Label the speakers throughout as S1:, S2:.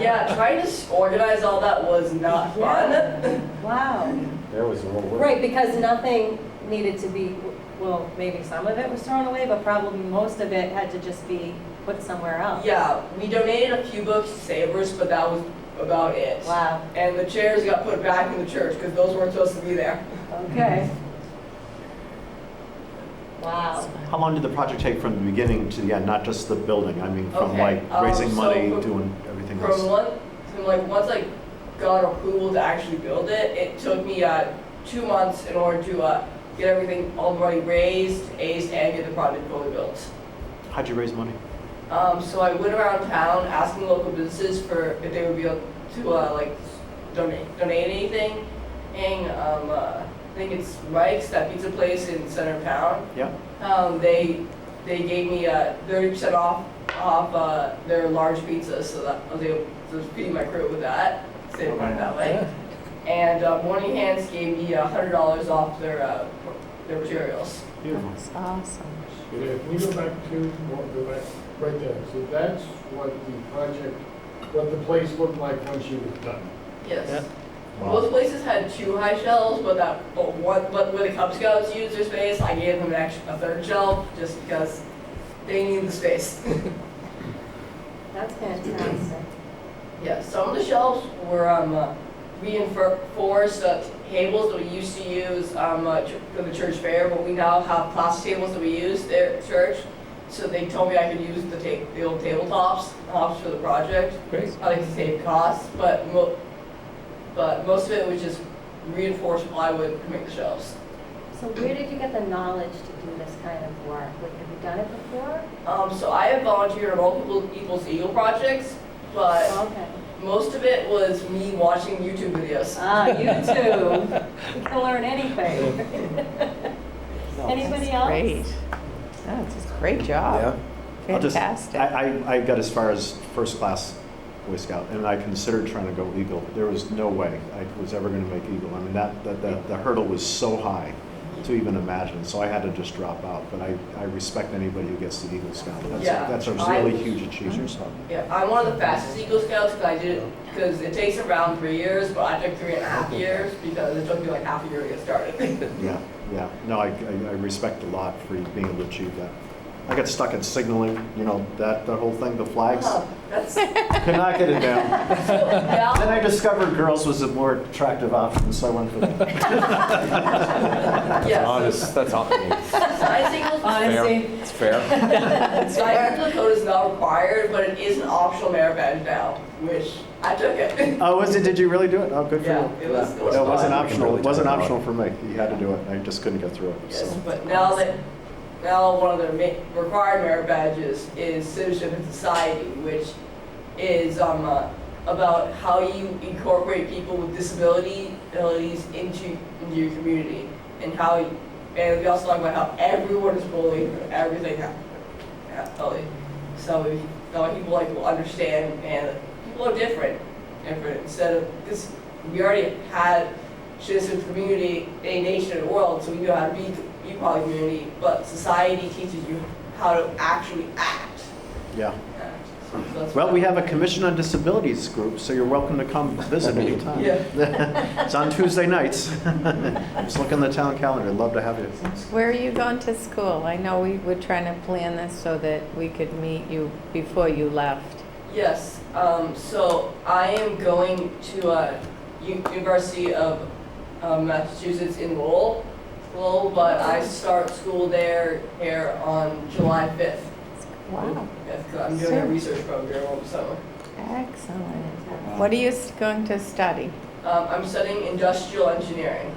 S1: Yeah, trying to s- organize all that was not fun.
S2: Wow.
S3: There was a little work.
S2: Right, because nothing needed to be, well, maybe some of it was thrown away, but probably most of it had to just be put somewhere else.
S1: Yeah, we donated a few books to Savers, but that was about it.
S2: Wow,
S1: And the chairs got put back in the church because those weren't supposed to be there.
S2: okay. Wow.
S4: How long did the project take from the beginning to the end, not just the building? I mean, from
S1: Okay,
S4: like
S1: um,
S4: raising
S1: so
S4: money,
S1: from-
S4: doing everything
S1: From
S4: else?
S1: one, from like, once I got approval to actually build it, it took me, uh, two months in order to, uh, get everything all the money raised, aced, and get the project fully built.
S4: How'd you raise money?
S1: Um, so I went around town asking local businesses for if they would be able to uh, like donate donate anything. And um, uh, I think it's Mike's that pizza place in center of town.
S4: Yeah?
S1: Um, they they gave me uh, thirty percent off off uh, their large pizza, so that I was able to feed my crew with that. Save money that way. And uh, Morning Hands gave me hundred dollars off their uh, their materials.
S4: Beautiful.
S2: awesome.
S5: Okay, If we go back to, well, go back, right there, so that's what the project, what the place looked like when she was done.
S1: Yes.
S3: Yep.
S1: Both places had two high shelves, but that, but what, but where the Cub Scouts used their space, I gave them an extra, a third shelf, just because they needed the space.
S2: That's fantastic.
S1: Yeah, some of the shelves were, um, uh, reinforced, uh, tables that we used to use, um, uh, ch- for the church fair, but we now have plastic tables that we use there at church. So they told me I could use the ta, the old tabletops, tops for the project.
S3: Great.
S1: I like to save costs, but mo, but most of it was just reinforced plywood to make the shelves.
S2: So where did you get the knowledge to do this kind of work? Like, have you done it before?
S1: Um, so I have volunteered on multiple Equals to Eagle projects, but
S2: Okay.
S1: most of it was me watching YouTube videos.
S2: Ah, you too. You can learn anything. Anybody else?
S6: Great. That's just a great
S3: Yeah.
S6: job.
S4: I'll just-
S6: Fantastic.
S4: I, I, I got as far as first class Boy Scout, and I considered trying to go Eagle. There was no way I was ever gonna make Eagle. I mean, that, that, the the hurdle was so high to even imagine, so I had to just drop out. But I, I respect anybody who gets to Eagle Scout. That's,
S1: Yeah,
S4: that's a
S1: I-
S4: really huge achievement.
S1: Yeah, I'm one of the fastest Eagle Scouts because I did it, because it takes around three years, but I took three and a half years because it took me like half a year to get started.
S4: Yeah, yeah. No, I, I I respect a lot for you being able to achieve that. I got stuck in signaling, you know, that, that whole thing, the flags.
S1: Oh, That's,
S4: Could not get it down. Then
S1: yeah,
S4: I discovered girls was a more attractive option, so I went for that.
S1: yeah, so
S3: Honest, that's all,
S1: science Eagles,
S2: Honesty.
S3: it's fair.
S1: science Eagle code is not required, but it is an optional merit badge now, which I took it.
S4: Oh, was it, did you really do it? Oh, good for
S1: Yeah,
S4: you.
S1: it was.
S4: No, it wasn't
S3: fine.
S4: optional, it wasn't optional for me. You had to do it, I just couldn't get through it,
S1: Yes,
S4: so.
S1: but now that, now one of the ma- required merit badges is citizenship and society, which is, um, uh, about how you incorporate people with disability abilities into, into your community, and how, you- and we also talk about how everyone is bullied, and everything hap- hap- bullied. So we, now people like will understand, and people are different, different, instead of, because we already had citizen community, a nation, and world, so we know how to be be part of the community, but society teaches you how to actually act.
S4: Yeah.
S1: Act. So that's
S4: Well,
S1: what-
S4: we have a Commission on Disabilities group, so you're welcome to come visit anytime. It's on Tuesday nights. Just look on the town calendar, love to have you.
S6: Where are you going to school? I know we were trying to plan this so that we could meet you before you left.
S1: Yes, um, so I am going to, uh, U- University of, um, Massachusetts in Lowell, Lowell, but I start school there here on July fifth.
S6: Wow,
S1: Fifth, i I'm doing a
S6: Sure.
S1: research program over the summer.
S6: excellent. What are you s- going to study?
S1: Um, I'm studying industrial engineering.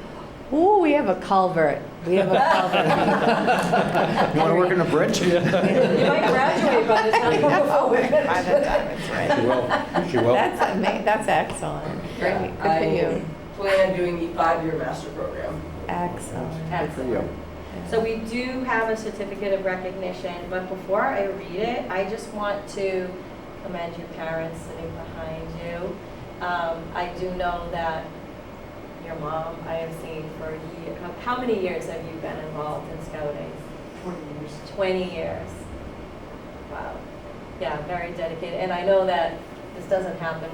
S6: Ooh, we have a culvert. We have a culvert.
S4: You want to work in a bridge?
S2: You might graduate by the time you go forward.
S6: By the time it's ready.
S3: She will, she will.
S6: That's ama- that's excellent. Great, good
S1: I
S6: for you.
S1: plan on doing the five-year master program.
S6: Excellent.
S4: Good for you.
S2: So we do have a certificate of recognition, but before I read it, I just want to commend your parents sitting behind you. Um, I do know that your mom, I have seen for a year, how- how many years have you been involved in scouting? 20 years. Wow. Yeah, very dedicated. And I know that this doesn't happen